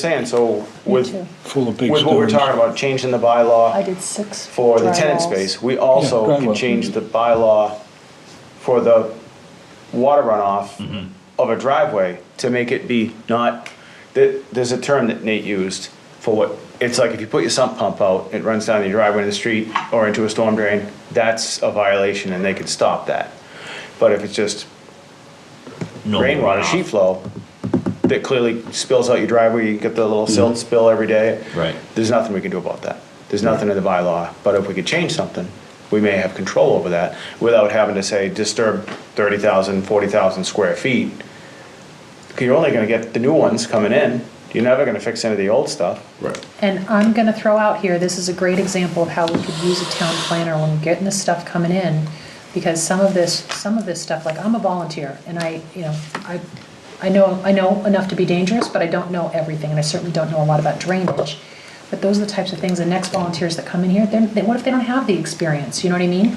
saying, so with, too. full of big with what we're stones. talking about, changing the I bylaw did six. for the dry tenant walls. space, we also Yeah, can drywall. change the bylaw for the water Mm-hmm. runoff of a driveway to make it be not, that, there's a term that Nate used for what, it's like if you put your sump pump out, it runs down your driveway in the street or into a storm drain, that's a violation and they could stop that. But if it's just normal rainwater, runoff. sheet flow, that clearly spills out your driveway, you get the little silt spill every day. Mm-hmm. Right. There's nothing we can do about that. There's nothing in the bylaw, but if we could change something, we may have control over that without having to say disturb 30,000, 40,000 square feet. 'Cause you're only gonna get the new ones coming in. You're never gonna fix any of the old stuff. Right. And I'm gonna throw out here, this is a great example of how we could use a town planner when we're getting this stuff coming in. Because some of this, some of this stuff, like I'm a volunteer and I, you know, I, I know, I know enough to be dangerous, but I don't know everything and I certainly don't know a lot about drainage. But those are the types of things, the next volunteers that come in here, then, they- what if they don't have the experience, you know what I mean?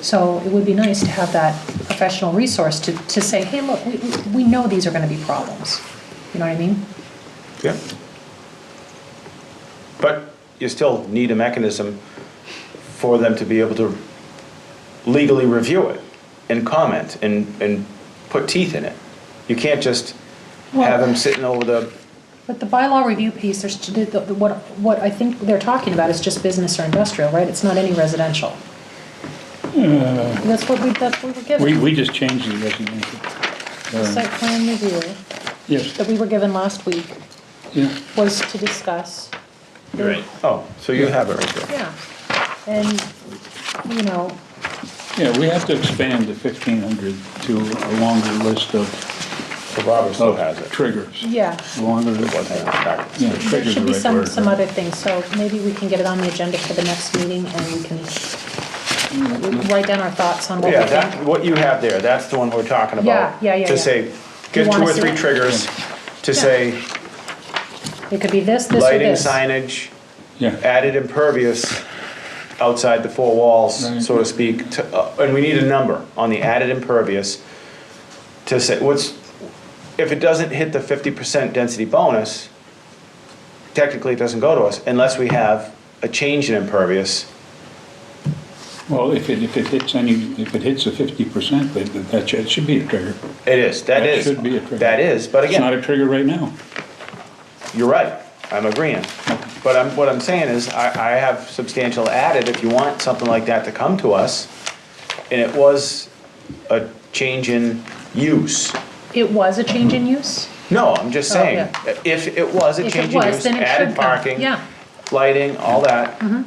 So it would be nice to have that professional resource to, to say, hey, look, we, we- we know these are gonna be problems, you know what I mean? Yeah. But you still need a mechanism for them to be able to legally review it and comment and, and put teeth in it. You can't just have them sitting over the, But the bylaw review piece, there's, the- the- what, what I think they're talking about is just business or industrial, right? It's not any residential. That's what we, that's what we were Hmm. We, given, we just changed the residential. the site plan review Yes, that we were given last week yeah, was to discuss, Right. oh, so you have it right there. yeah. And, you know, yeah, we have to expand the fifteen hundred to a longer list of, So Robert still Oh, has of it. triggers. yeah, Longer, Wasn't in the packet. yeah, there triggers should the be right some, word. some other things, so maybe we can get it on the agenda for the next meeting and we can write down our thoughts on what we Yeah, think. that, what you have there, that's the one we're talking about. Yeah, yeah, yeah, To yeah. say, get You two wanna or see three it? triggers to say It could be this, this, or lighting this. signage, Yeah, added impervious outside the four walls, Right. so to speak, to- uh, and we need a number on the added impervious to say, what's, if it doesn't hit the fifty percent density bonus, technically it doesn't go to us unless we have a change in impervious. well, if it, if it hits any, if it hits the fifty percent, that, that should- should be a trigger. It is, that That is. should be a trigger. That is, but It's not again, a trigger right now. you're right, I'm agreeing. But I'm, what I'm saying is, I, I have substantial added, if you want something like that to come to us, and it was a change in use. It was a change in use? No, I'm just Oh, saying, yeah. if it was a If it change in was, use, then it added should come, parking, yeah. lighting, all that. Mm-hmm.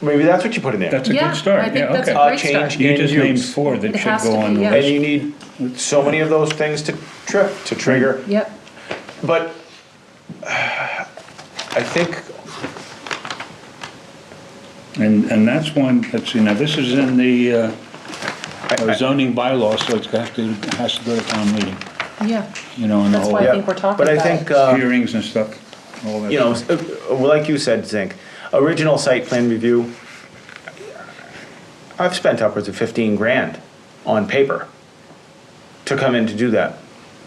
Maybe that's what you put in there. That's a Yeah, good I start, think yeah, that's a okay. Uh, great start. change You just in named use. four that It should has to go on be, the yeah. And list. you need so many of those things to trip, to trigger. Yep, But I think, And, and that's one, let's see, now this is in the uh, I- I- zoning bylaw, so it's got to, has to go to town meeting, yeah. you know, and the That's why I whole think we're talking but I about think, it. uh, hearings and stuff, all that. you know, s- uh, like you said, Zink, original site plan review, I've spent upwards of 15 grand on paper to come in to do that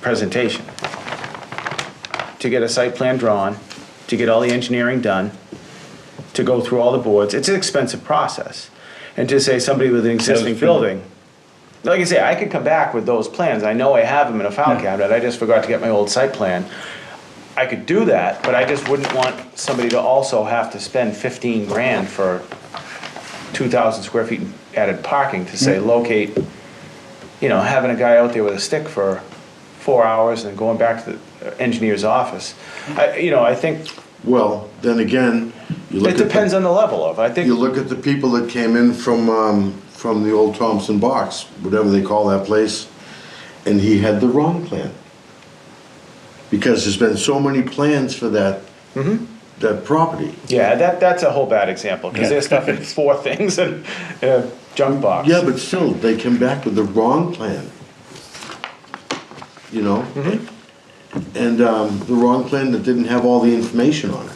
presentation. To get a site plan drawn, to get all the engineering done, to go through all the boards. It's an expensive process. And to say somebody with an existing true. building, like I say, I could come back with those plans. I know I have them in a file cabinet. I just forgot to get my old site plan. I could do that, but I just wouldn't want somebody to also have to spend 15 grand for 2,000 square feet added parking to say locate, you know, having a guy out there with a stick for four hours and going back to the engineer's office. I, you know, I think, Well, then again, you look it at the- depends on the level of, I You think, look at the people that came in from, um, from the old Thompson box, whatever they call that place, and he had the wrong plan. Because there's been so many plans for that, Mm-hmm. that property. yeah, that, that's a whole bad example, because Yeah. there's stuff in four things and a junk box. Yeah, but still, they came back with the wrong plan. You know? And, um, the wrong plan that didn't have all the information on it.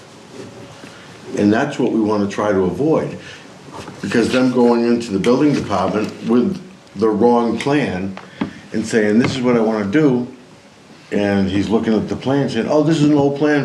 And that's what we wanna try to avoid, because them going into the building department with the wrong plan and saying, this is what I wanna do, and he's looking at the plan saying, oh, this is an old plan